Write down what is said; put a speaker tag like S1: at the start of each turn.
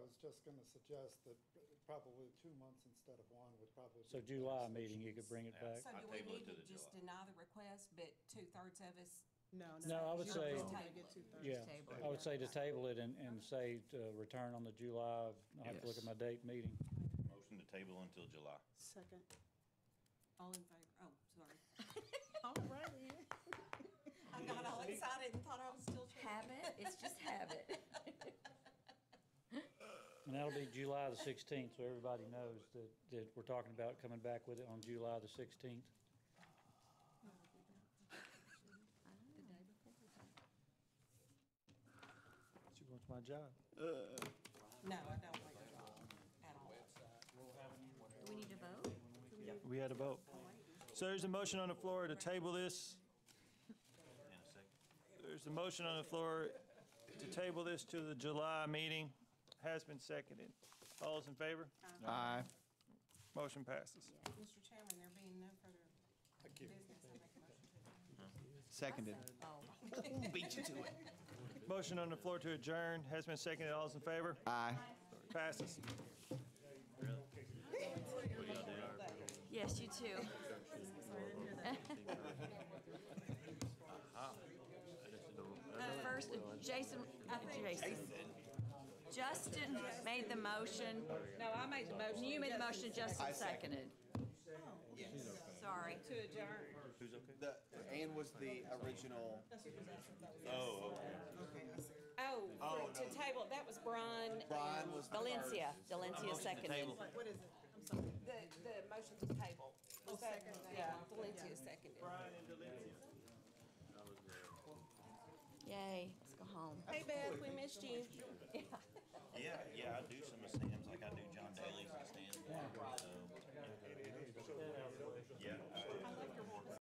S1: just gonna suggest that probably two months instead of one would probably. be
S2: So
S1: the
S2: July
S1: best.
S2: meeting, you could bring it back?
S3: So
S4: I
S3: do we
S4: table it
S3: need
S4: to
S3: to
S4: the
S3: just
S4: July.
S3: deny the request, but two-thirds of us?
S5: No, no.
S2: No, I would
S5: you're
S2: say-
S5: just gonna get two-thirds.
S2: Yeah,
S3: Table it.
S2: I would say to table it and, and say to return on the July, I'll have to look at my date meeting.
S4: Motion to table until July.
S5: Second.
S3: All in favor? Oh, sorry.
S5: All right, then.
S3: I got all excited and thought I was still trying.
S6: Habit, it's just habit.
S2: And that'll be July the sixteenth, so everybody knows that, that we're talking about coming back with it on July the sixteenth.
S6: The day before.
S2: She wants my job.
S3: No, I don't like it at all, at all.
S6: Do we need to vote?
S7: We had a vote. So there's a motion on the floor to table this.
S4: In a second.
S7: There's a motion on the floor to table this to the July meeting. Has been seconded. All those in favor?
S8: Aye.
S7: Motion passes.
S3: Mr. Chairman, there being no further
S1: I keep-
S3: business, I make a motion to.
S8: Seconded.
S3: Oh.
S7: Motion on the floor to adjourn. Has been seconded. All those in favor?
S8: Aye.
S7: Passes.
S6: Yes, you too. The Uh, First, Jason, Jason. Justin made the motion. No, I made the motion. You made the motion, Justin seconded. Oh, Sorry.
S3: To adjourn.
S4: Who's okay?
S8: Anne was the original.
S4: Oh, okay.
S6: Oh, to table, that was Brian.
S8: Brian was the
S6: Valencia, Valencia
S4: Motion to
S6: seconded.
S4: table.
S5: What is it? I'm sorry.
S3: The, the motion to table. Was that- Oh, Yeah, Valencia seconded.
S6: Yay, let's go home.
S3: Hey Beth, we missed you.
S4: Yeah, yeah, I